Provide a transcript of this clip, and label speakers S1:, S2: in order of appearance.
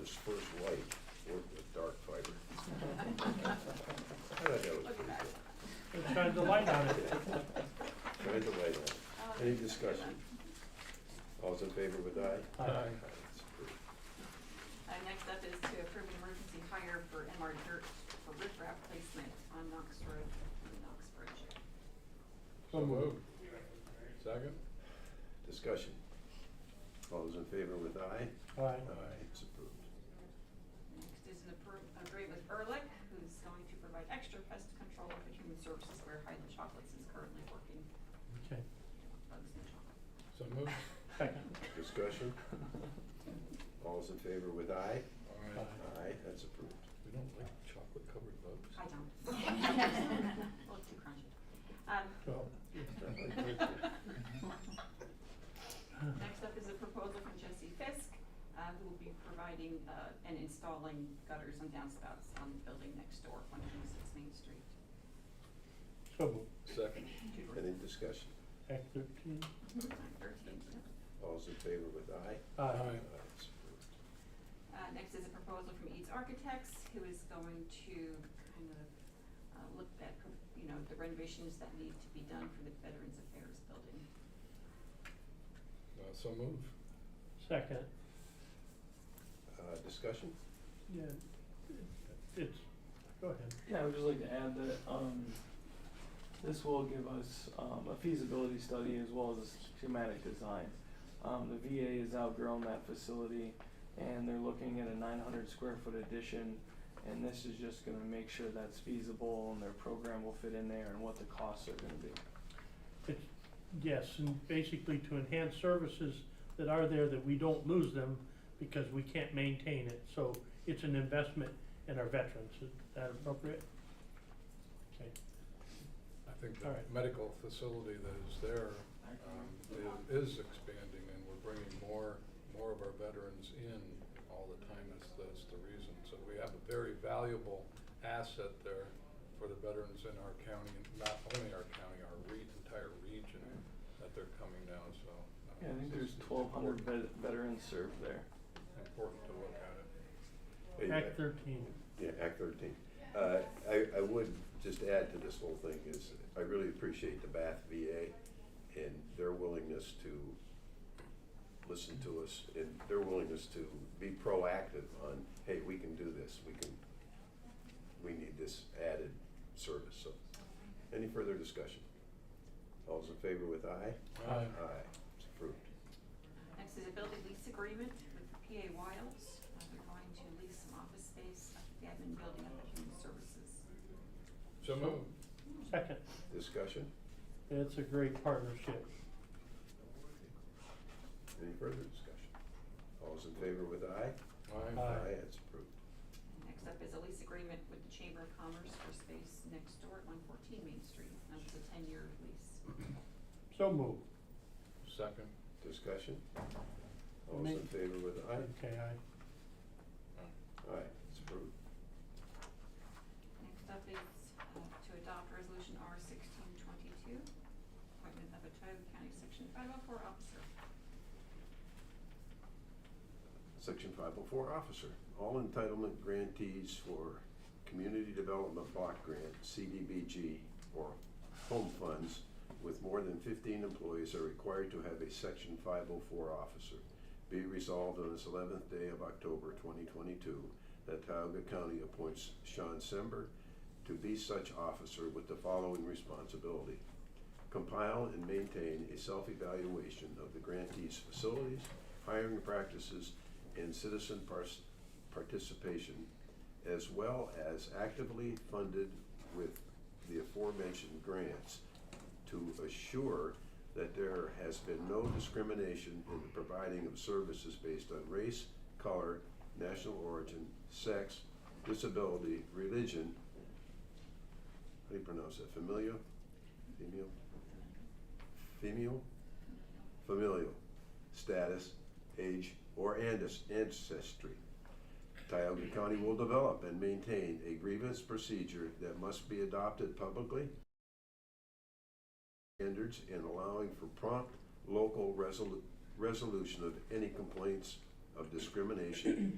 S1: his first light worked with dark fiber. I thought that was pretty good.
S2: We tried the light on it.
S1: Tried to light on. Any discussion? All's in favor with aye?
S2: Aye.
S1: It's approved.
S3: Uh, next up is to approve an emergency hire for MR Dirt for riprap placement on Knox Road in Knox Bridge.
S4: So moved. Second?
S1: Discussion. All those in favor with aye?
S2: Aye.
S1: Aye, it's approved.
S3: Next is an appro- agreement with Ehrlich, who's going to provide extra pest control for human services where Highland Chocolates is currently working
S2: Okay,
S3: bugs and chocolate.
S4: So moved.
S2: second.
S1: Discussion. All's in favor with aye?
S4: Aye.
S1: Aye, that's approved.
S4: We don't like chocolate covered bugs.
S3: I don't. A little too crunchy. Um,
S2: Well,
S3: Next up is a proposal from Jesse Fisk, uh, who will be providing, uh, and installing gutters and downspouts on the building next door, one twenty-six Main Street.
S2: so moved.
S4: Second?
S3: Uh,
S1: Any discussion?
S2: Act thirteen.
S3: Thirteen, yeah.
S1: All's in favor with aye?
S2: Aye.
S1: it's approved.
S3: Uh, next is a proposal from Eads Architects, who is going to kind of, uh, look at, you know, the renovations that need to be done for the Veterans Affairs Building.
S4: Uh, so moved.
S2: Second,
S1: Uh, discussion?
S2: yeah, it's, go ahead.
S5: Yeah, I would just like to add that, um, this will give us, um, a feasibility study as well as schematic design. Um, the VA has outgrown that facility and they're looking at a nine hundred square foot addition. And this is just gonna make sure that's feasible and their program will fit in there and what the costs are gonna be.
S2: It's, yes, and basically to enhance services that are there, that we don't lose them because we can't maintain it. So it's an investment in our veterans. Is that appropriate? Okay,
S4: I think
S2: All
S4: the
S2: right.
S4: medical facility that is there, um, i- is expanding and we're bringing more, more of our veterans in all the time. That's, that's the reason. So we have a very valuable asset there for the veterans in our county, and not only our county, our re- entire region that they're coming down, so. uh,
S5: Yeah, I think
S4: it's-
S5: there's
S4: it's
S5: twelve hundred
S4: important-
S5: veterans served there.
S4: Important to look at it.
S1: Hey,
S2: Act
S1: uh,
S2: thirteen.
S1: Yeah, Act thirteen. Uh, I, I would just add to this whole thing is, I really appreciate the Bath VA and their willingness to listen to us and their willingness to be proactive on, hey, we can do this, we can, we need this added service, so. Any further discussion? All's in favor with aye?
S2: Aye.
S1: Aye, it's approved.
S3: Next is a building lease agreement with PA Wiles. Uh, They're going to lease some office space up at the admin building up at Human Services.
S4: So moved.
S2: Second,
S1: Discussion?
S2: it's a great partnership.
S1: Any further discussion? All's in favor with aye?
S4: Aye.
S2: Aye.
S1: it's approved.
S3: Next up is a lease agreement with the Chamber of Commerce for space next door at one fourteen Main Street. That was a ten-year lease.
S2: So moved.
S4: Second.
S1: Discussion? All those in
S2: Ma-
S1: favor with aye?
S2: Okay, aye.
S1: Aye, it's approved.
S3: Next up is uh, to adopt Resolution R sixteen twenty-two, appointment of a Tioga County Section five oh four officer.
S1: Section five oh four, officer. All entitlement grantees for Community Development Block Grant, CDBG, or home funds with more than fifteen employees are required to have a section five oh four officer. Be resolved on this eleventh day of October twenty twenty-two that Tioga County appoints Sean Sember to be such officer with the following responsibility. compile and maintain a self-evaluation of the grantee's facilities, hiring practices, and citizen pars- participation, as well as actively funded with the aforementioned grants to assure that there has been no discrimination in the providing of services based on race, color, national origin, sex, disability, religion, how do you pronounce that, familial, female, Female, familial, status, age, or andes- ancestry. Tioga County will develop and maintain a grievance procedure that must be adopted publicly. Standards and allowing for prompt local resolu- resolution of any complaints of discrimination